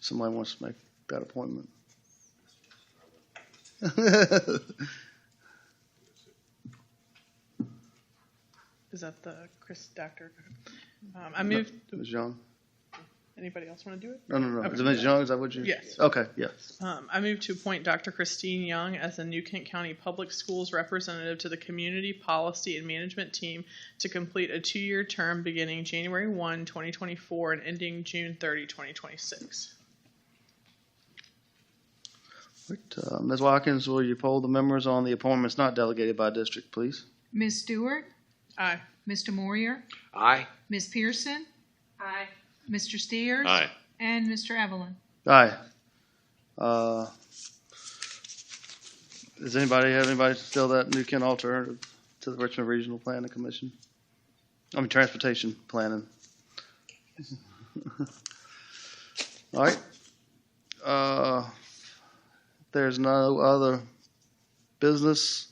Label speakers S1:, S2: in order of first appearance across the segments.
S1: Somebody wants to make that appointment.
S2: Is that the Chris Doctor? Um, I moved,
S1: Ms. Young?
S2: anybody else want to do it?
S1: No, no, no. Is it
S2: Okay.
S1: Ms. Young? Is that what you?
S2: Yes.
S1: Okay, yes.
S2: Um, I moved to appoint Dr. Christine Young as the New Kent County Public Schools representative to the Community Policy and Management Team to complete a two-year term beginning January 1, 2024 and ending June 30, 2026.
S1: Right, uh, Ms. Watkins, will you poll the members on the appointments not delegated by district, please?
S3: Ms. Stewart,
S2: Aye.
S3: Mr. Moyer,
S4: Aye.
S3: Ms. Pearson,
S5: Aye.
S3: Mr. Steers.
S4: Aye.
S3: And Mr. Evelyn.
S1: Aye. Uh, Does anybody have anybody still that New Kent alternative to the Richmond Regional Planning Commission? I mean, Transportation Planning. All right. Uh, There's no other business.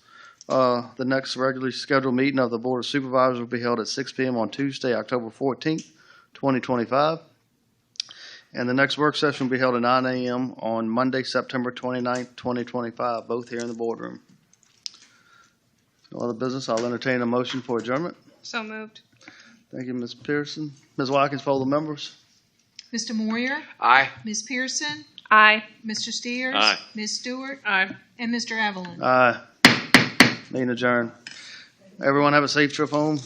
S1: Uh, The next regularly scheduled meeting of the Board of Supervisors will be held at 6 PM on Tuesday, October 14th, 2025. And the next work session will be held at nine AM on Monday, September 29th, twenty-five, both here in the boardroom. No other business, I'll entertain a motion for adjournment.
S5: So moved.
S1: Thank you, Ms. Pearson. Ms. Watkins, poll the members.
S3: Mr. Moyer,
S4: Aye.
S3: Ms. Pearson,
S5: Aye.
S3: Mr. Steers.
S4: Aye.
S3: Ms. Stewart,
S2: Aye.
S3: and Mr. Evelyn.
S1: Aye. Meeting adjourned. Everyone have a safe trip home.